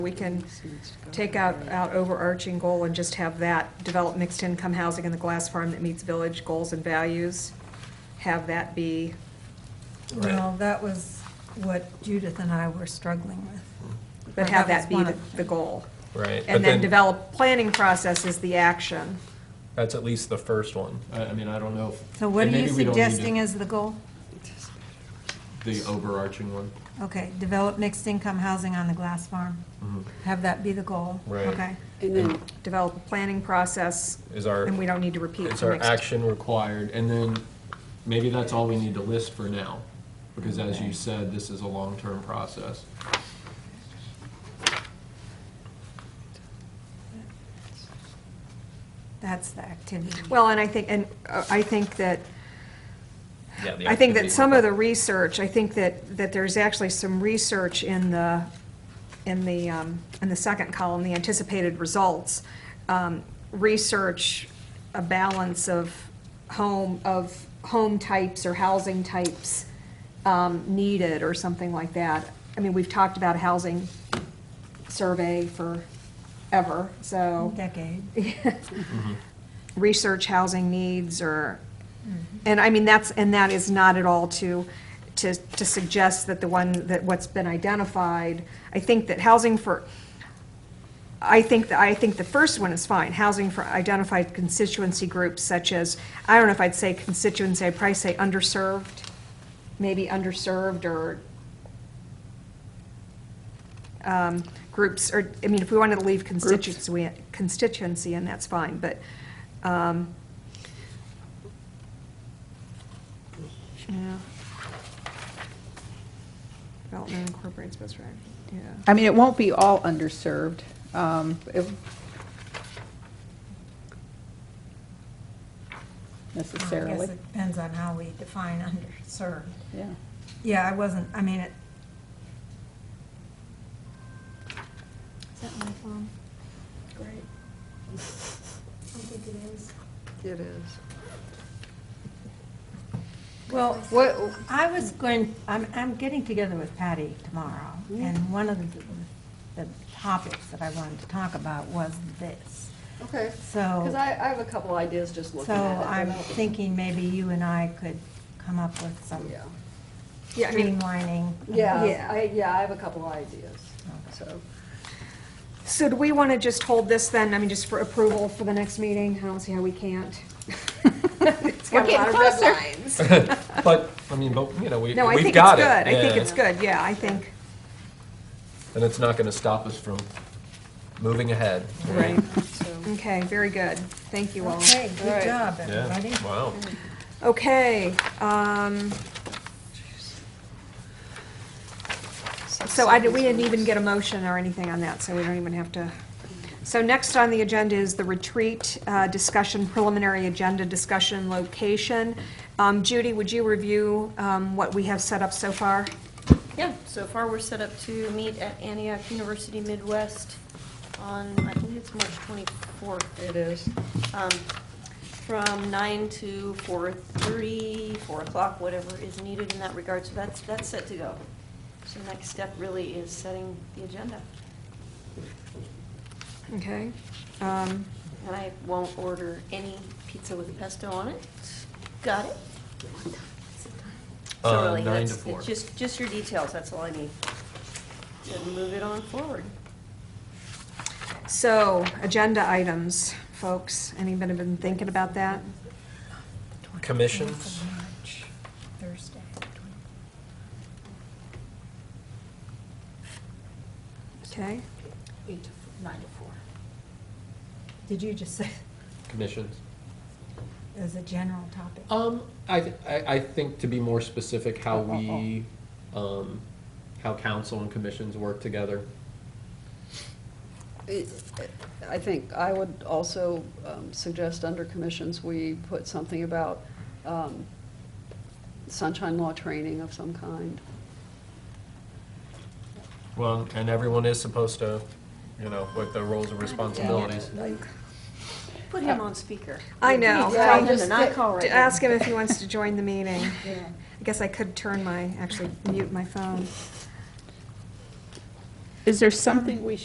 We can take out, out overarching goal and just have that, develop mixed-income housing in the glass farm that meets village goals and values, have that be, Well, that was what Judith and I were struggling with. but Or have that that was be one the- of- the goal. Right. but And then develop, planning process is the action. That's at least the first one. I, I mean, I don't know. if- So what and are you maybe we don't need to- suggesting as the goal? The overarching one. Okay, develop mixed-income housing on the glass farm. Mm-hmm. Have that be the goal. Mm. Right. Okay. And then, Develop a planning process, Is our, and we don't need to repeat is the our mixed. action required? And then maybe that's all we need to list for now. Because as you said, this is a long-term process. That's the activity. Well, and I think, and uh, I think that Yeah. I think that some of the research, I think that, that there's actually some research in the, in the, um, in the second column, the anticipated results, um, research a balance of home, of home types or housing types um, needed or something like that. I mean, we've talked about a housing survey forever, so Decade. research housing needs or, and I mean, that's, and that is not at all to, to, to suggest that the one, that what's been identified, I think that housing for, I think, that I think the first one is fine, housing for identified constituency groups such as, I don't know if I'd say constituency, I'd probably say underserved, maybe underserved or um, groups, or, I mean, if we wanted to leave constituency, constituency, and that's fine, but, um, yeah. Development incorporates best practice, yeah. I mean, it won't be all underserved. Um, it- I guess Necessarily, it depends on how we define underserved. yeah. Yeah, I wasn't, I mean, it, Is that my phone? Great. it is. well, What, I was going, I'm, I'm getting together with Patty tomorrow, Mm-hmm. and one of the, the topics that I wanted to talk about was this. okay, because So, I, I have a couple ideas just so looking at it. but I'm I don't- thinking maybe you and I could come up with some Yeah, Yeah, I mean, streamlining. of yeah, Yeah. I, yeah, I have a couple ideas, so. so do we want to just hold this then, I mean, just for approval for the next meeting? I don't see how we can't. It's got a lot of red lines. But, I mean, but, you know, we, No, I think it's good, we've got it. I think yeah. it's good, yeah, I think, And it's not gonna stop us from moving ahead. right, so- okay, very good, thank you all. Okay, All good right. job, Yeah, everybody. wow. Okay, um, so I, did- we didn't even get a motion or anything on that, so we don't even have to. So next on the agenda is the retreat uh, discussion, preliminary agenda discussion location. Um, Judy, would you review um, what we have set up so far? Yeah, so far we're set up to meet at Antioch University Midwest on, I think it's March 24th. It is. Um, From 9 to 4:30, 4 o'clock, whatever is needed in that regard, so that's, that's set to go. So the next step really is setting the agenda. Okay. Um, And I won't order any pizza with pesto on it. Got it? So Uh, really, nine that's, to four. it's just, just your details, that's all I need. To move it on forward. So, agenda items, folks, anybody been thinking about that? Commissions? Thursday. Okay, Eight to nine to four. Did you just say, Commissions. as a general topic? Um, I, th- I, I think to be more specific, how we, um, how council and commissions work together. It- I think I would also um, suggest under commissions, we put something about um, sunshine law training of some kind. Well, and everyone is supposed to, you know, with their roles and responsibilities. Put him on speaker. I know. Tell Well, him to not call right To now. ask him if he wants to join the meeting. I guess I could turn my, actually mute my phone. Is there something we